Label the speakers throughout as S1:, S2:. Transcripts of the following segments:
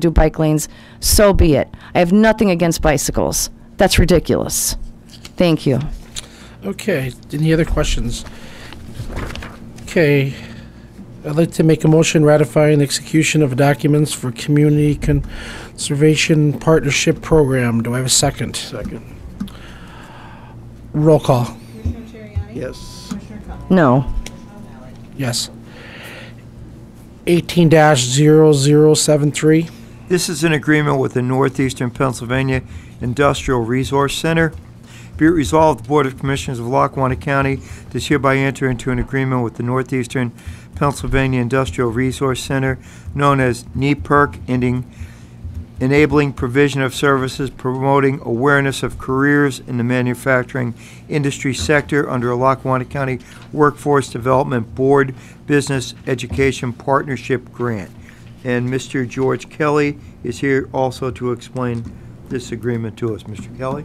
S1: to do bike lanes, so be it. I have nothing against bicycles. That's ridiculous. Thank you.
S2: Okay, any other questions? Okay, I'd like to make a motion ratifying the execution of documents for Community Conservation Partnership Program. Do I have a second?
S3: Second.
S2: Roll call,
S4: Commissioner Terriani?
S3: Yes.
S4: Commissioner Cummings?
S1: No.
S4: Commissioner O'Malley?
S2: yes. Eighteen 73
S5: This is an agreement with the Northeastern Pennsylvania Industrial Resource Center. Be it resolved, the Board of Commissioners of Lackawanna County does hereby enter into an agreement with the Northeastern Pennsylvania Industrial Resource Center, known as NEPERC, ending enabling provision of services promoting awareness of careers in the manufacturing industry sector under a Lackawanna County Workforce Development Board Business Education Partnership Grant. And Mr. George Kelly is here also to explain this agreement to us. Mr. Kelly?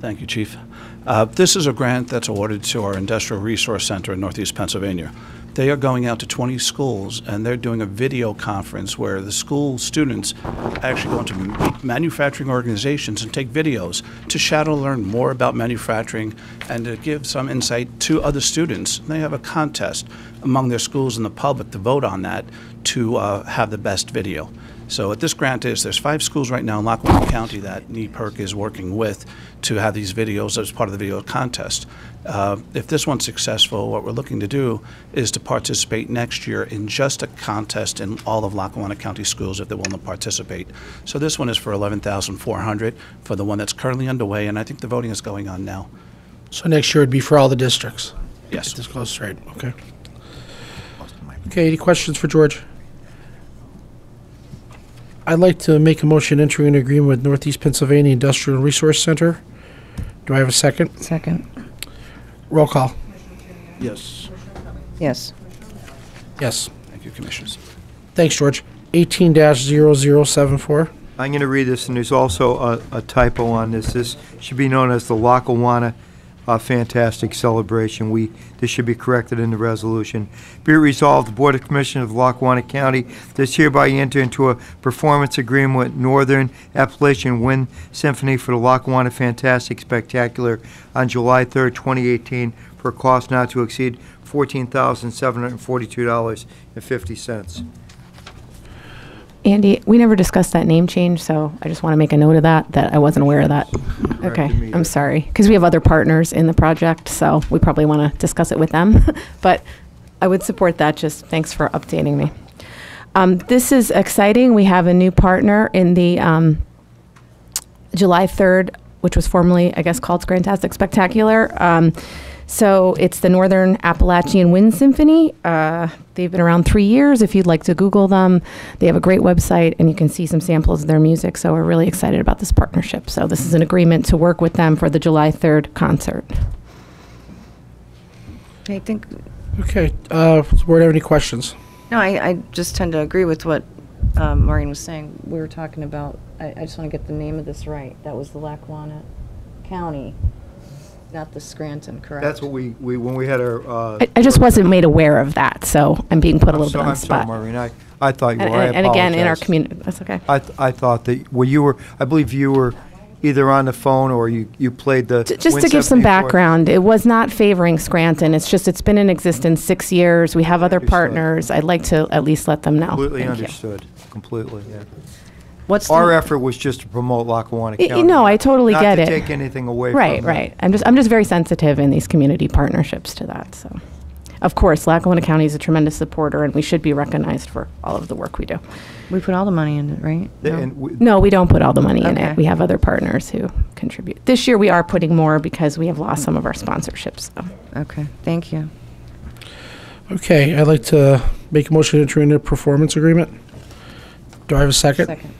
S6: Thank you, Chief. Uh, This is a grant that's awarded to our Industrial Resource Center in Northeast Pennsylvania. They are going out to 20 schools, and they're doing a video conference where the school students actually go into m- manufacturing organizations and take videos to shadow learn more about manufacturing and to give some insight to other students. They have a contest among their schools and the public to vote on that to uh, have the best video. So what this grant is, there's five schools right now in Lackawanna County that NEPERC is working with to have these videos as part of the video contest. Uh, If this one's successful, what we're looking to do is to participate next year in just a contest in all of Lackawanna County schools if they're willing to participate. So this one is for 11,400 for the one that's currently underway, and I think the voting is going on now.
S2: So next year it'd be for all the districts.
S6: Yes.
S2: This goes right, okay. Okay, any questions for George? I'd like to make a motion entering an agreement with Northeast Pennsylvania Industrial Resource Center. Do I have a second?
S1: Second.
S2: Roll call.
S3: Yes.
S1: Yes.
S2: Yes.
S6: Thank you, Commissioners.
S2: Thanks, George. Eighteen 74
S5: I'm going to read this, and there's also a a typo on this. This should be known as the Lackawanna uh, Fantastic Celebration. We, this should be corrected in the resolution. Be it resolved, the Board of Commissioners of Lackawanna County does hereby enter into a performance agreement with Northern Appalachian Wind Symphony for the Lackawanna Fantastic Spectacular on July 3rd, 2018, for a cost not to exceed $14,742.50.
S7: Andy, we never discussed that name change, so I just want to make a note of that, that I wasn't aware of that. Okay,
S5: me either.
S7: I'm sorry, because we have other partners in the project, so we probably want to discuss it with them. But I would support that, just thanks for updating me. Um, This is exciting, we have a new partner in the um, July 3rd, which was formerly, I guess, called Grantastic Spectacular. Um, so it's the Northern Appalachian Wind Symphony. Uh, they've been around three years. If you'd like to Google them, they have a great website and you can see some samples of their music. So we're really excited about this partnership. So this is an agreement to work with them for the July 3rd concert.
S8: I think,
S2: Okay, uh, does the board have any questions?
S8: no, I, I just tend to agree with what um, Maureen was saying. We were talking about, I, I just want to get the name of this right. That was the Lackawanna County, not the Scranton, correct?
S5: That's what we, we when we had our... uh,
S7: I, I just wasn't made aware of that, so I'm being put a
S5: I'm
S7: little
S5: so-
S7: bit on
S5: I'm
S7: the spot.
S5: sorry, Maureen, I, I thought you
S7: and,
S5: were, I
S7: and, and again, in our
S5: apologize.
S7: community, that's okay.
S5: I, th- I thought that, well, you were, I believe you were either on the phone or you, you played the.
S7: J- Just
S5: Wind
S7: to give some
S5: Symphony for us.
S7: background, it was not favoring Scranton. It's just, it's been in existence six years. We have other
S5: Understood.
S7: partners. I'd like to at least let them know.
S5: Completely
S7: Thank you.
S5: understood, completely, yeah.
S8: What's
S5: Our
S8: the,
S5: effort was just to promote Lackawanna
S7: Y-
S5: County.
S7: no, I totally
S5: Not
S7: get it.
S5: to take anything away from
S7: Right,
S5: that.
S7: right. I'm just, I'm just very sensitive in these community partnerships to that, so. Of course, Lackawanna County is a tremendous supporter, and we should be recognized for all of the work we do.
S8: we put all the money in it, right?
S5: The-
S8: No?
S5: And we-
S7: No, we don't put all the money in
S8: Okay.
S7: it. We have other partners who contribute. This year, we are putting more because we have lost some of our sponsorships, so.
S8: Okay, thank you.
S2: Okay, I'd like to make a motion to enter into a performance agreement. Do I have a second?
S8: Second.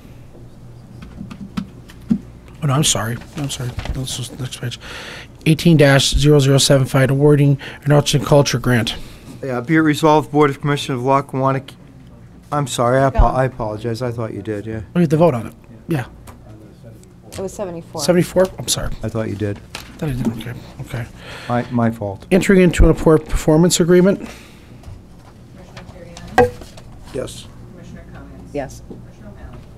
S2: Oh, no, I'm sorry, I'm sorry. This is next page. Eighteen 75 awarding an arts and culture grant.
S5: yeah, Be it resolved, Board of Commissioners of Lackawanna, C- I'm sorry, I apo- I apologize, I thought you did, yeah.
S2: We Oh, have to vote on it. Yeah,
S8: It was 74.
S2: seventy-four, I'm sorry.
S5: I thought you did.
S2: That I didn't, okay, okay.
S5: My, my fault.
S2: Entering into an appor- performance agreement.
S3: Yes.
S4: Commissioner Cummings?
S8: Yes.